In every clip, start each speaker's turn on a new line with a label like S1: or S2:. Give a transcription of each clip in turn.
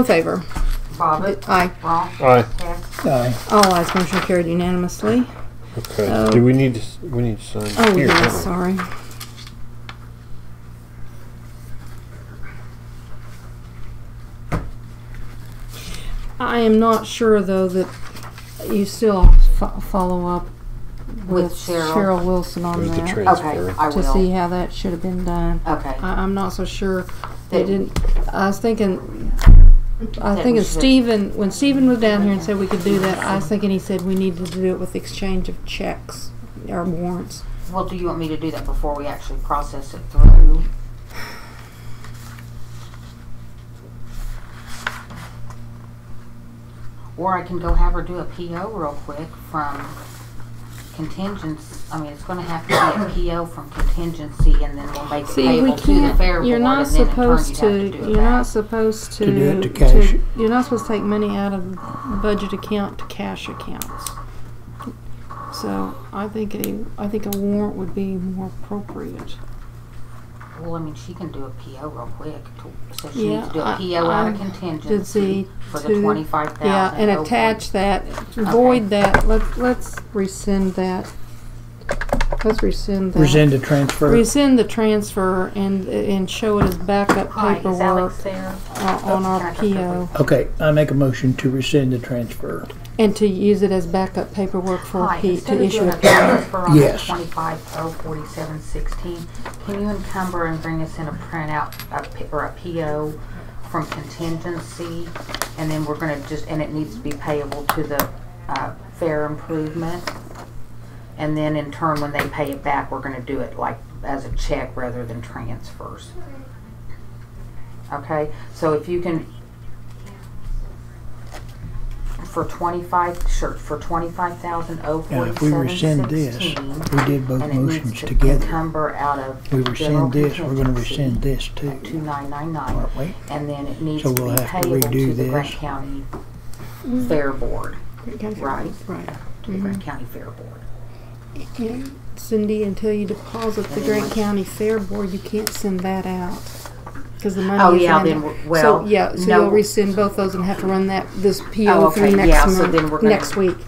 S1: in favor?
S2: Bobbit,
S1: Aye.
S2: Wrong,
S3: Aye.
S2: Hess,
S4: Aye.
S1: All ayes, motion carried unanimously.
S3: Okay.
S1: Oh.
S3: Do we need to, s- we need to sign?
S1: Oh,
S3: here,
S1: yeah,
S3: don't we?
S1: sorry. I am not sure, though, that you still fo- follow up with
S2: with Cheryl.
S1: Cheryl Wilson on
S3: There's the
S1: that
S2: Okay,
S3: transfer.
S2: I
S1: to see
S2: will.
S1: how that should have been done.
S2: Okay,
S1: I, I'm not so sure. They
S2: That-
S1: didn't, I was thinking, I was
S2: That
S1: thinking
S2: was the-
S1: Stephen, when Stephen was down here and said we could do that, I was thinking he said we needed to do it with exchange of checks or warrants.
S2: well, do you want me to do that before we actually process it through? Or I can go have her do a PO real quick from contingency, I mean, it's gonna have to be a PO from contingency and then we'll make it
S1: See, we
S2: payable to the
S1: can't,
S2: fair board.
S1: you're not
S2: and then in turn
S1: supposed
S2: you'd
S1: to,
S2: have do it
S1: you're not
S2: back.
S1: supposed to.
S4: To do it to cash it.
S1: You're not supposed to take money out of the budget account to cash accounts. So I think a, I think a warrant would be more appropriate.
S2: Well, I mean, she can do a PO real quick, to- so she
S1: Yeah,
S2: needs to do
S1: I-
S2: a PO out
S1: I
S2: of
S1: Did
S2: contingency
S1: see
S2: for the
S1: to-
S2: twenty-five thousand. oh
S1: Yeah, and attach that, void that, let, let's rescind that. Let's rescind that.
S4: Rescind the transfer.
S1: Rescind the transfer and, and show it as backup paperwork
S2: there?
S1: uh, on our PO.
S4: Okay, I make a motion to rescind the transfer.
S1: And to use it as backup paperwork for
S2: Hi,
S1: P,
S2: instead
S1: to
S2: of
S1: issue
S2: doing
S1: a
S2: a transfer on the
S4: Yes.
S2: twenty-five oh forty-seven sixteen, can you encumber and bring us in a printout, a P- or a PO from contingency? And then we're gonna just, and it needs to be payable to the, uh, fair improvement. And then in turn, when they pay it back, we're gonna do it like as a check rather than transfers. Okay, so if you can for twenty-five, sure, for twenty-five thousand oh
S4: Now, if we
S2: forty-seven
S4: rescind this,
S2: sixteen.
S4: we did both
S2: And it
S4: motions
S2: needs to
S4: together.
S2: encumber out of.
S4: We rescind this, we're gonna rescind this
S2: Two
S4: too,
S2: nine nine nine,
S4: aren't we?
S2: and then it needs
S4: So
S2: to
S4: we'll
S2: be
S4: have to
S2: payable to
S4: redo
S2: the Grant
S4: this.
S2: County Fair Board, Right.
S1: Right.
S2: to the Grant County Fair Board.
S1: Yeah. Cindy, until you deposit the
S2: And then
S1: Grant
S2: once-
S1: County Fair Board, you can't send that out. Cause the
S2: Oh,
S1: money is in.
S2: yeah, then
S1: it.
S2: w- well,
S1: So, yeah, so
S2: no.
S1: you'll rescind both those and have to run that, this
S2: Oh,
S1: PO through
S2: okay, yeah,
S1: next
S2: so then we're
S1: month,
S2: gonna-
S1: next week.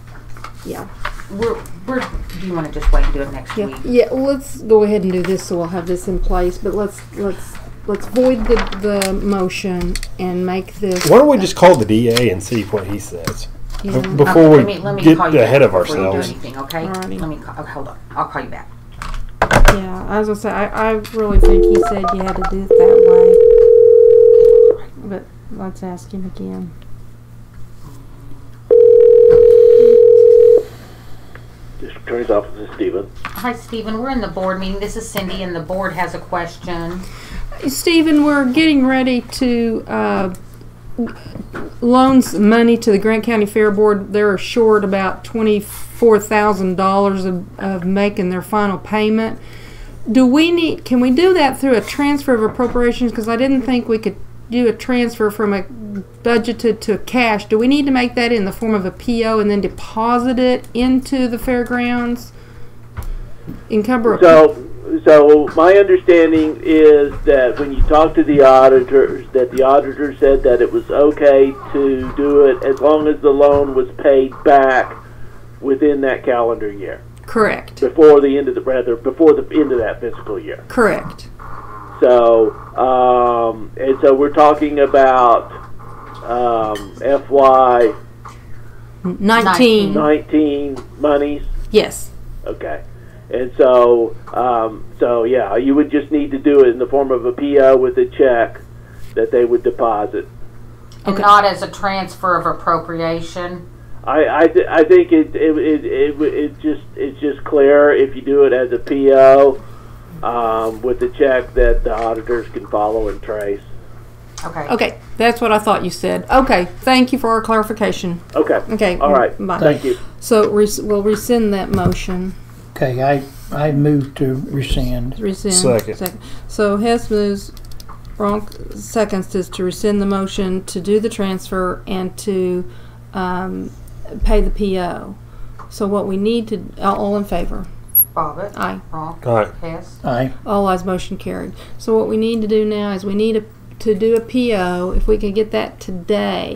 S1: Yeah,
S2: We're, we're, do you wanna just wait and do it next
S1: yeah,
S2: week?
S1: yeah, let's go ahead and do this, so we'll have this in place, but let's, let's, let's void the, the motion and make this.
S3: Why don't we just call the DA and see what he says?
S1: Yeah.
S3: Before
S2: Okay,
S3: we
S2: let me- let me
S3: get
S2: call you
S3: ahead
S2: back before
S3: of
S2: you do
S3: ourselves.
S2: anything, Okay, let
S1: Alrighty.
S2: me, ca- oh, hold on, I'll call you back.
S1: Yeah, I was gonna say, I, I really think he said you had to do it that way. But let's ask him again.
S5: District Attorney's Office is Stephen.
S2: Hi, Stephen. We're in the board meeting. This is Cindy, and the board has a question.
S1: Stephen, we're getting ready to, uh, loan some money to the Grant County Fair Board. They're short about twenty-four thousand dollars of, of making their final payment. Do we need, can we do that through a transfer of appropriations? Because I didn't think we could do a transfer from a budgeted to cash. Do we need to make that in the form of a PO and then deposit it into the fairgrounds? Encumber, a-
S5: So, so my understanding is that when you talk to the auditors, that the auditor said that it was okay to do it as long as the loan was paid back within that calendar year,
S1: correct,
S5: before the end of the, rather, before the end of that fiscal year.
S1: correct.
S5: So, um, and so we're talking about, um, FY
S1: Nineteen,
S5: nineteen monies.
S1: yes.
S5: Okay. And so, um, so yeah, you would just need to do it in the form of a PO with a check that they would deposit.
S2: And
S1: Okay.
S2: not as a transfer of appropriation.
S5: I, I, th- I think it it, it, it it just it's just clear if you do it as a PO um, with a check that the auditors can follow and trace.
S2: Okay.
S1: Okay, that's what I thought you said. Okay, thank you for our clarification.
S5: Okay.
S1: Okay.
S5: All right.
S1: Bye.
S5: Thank you.
S1: So res- we'll rescind that motion.
S4: Okay, I, I move to rescind.
S1: Rescind.
S3: Second.
S1: So Hess moves, Ronk seconds is to rescind the motion to do the transfer and to um, pay the PO. So what we need to, all all in favor?
S2: Bobbit.
S1: Aye.
S2: Wrong.
S3: All right.
S2: Hess.
S4: Aye,
S1: All eyes motion carried. So what we need to do now is we need a, to do a PO, if we could get that today,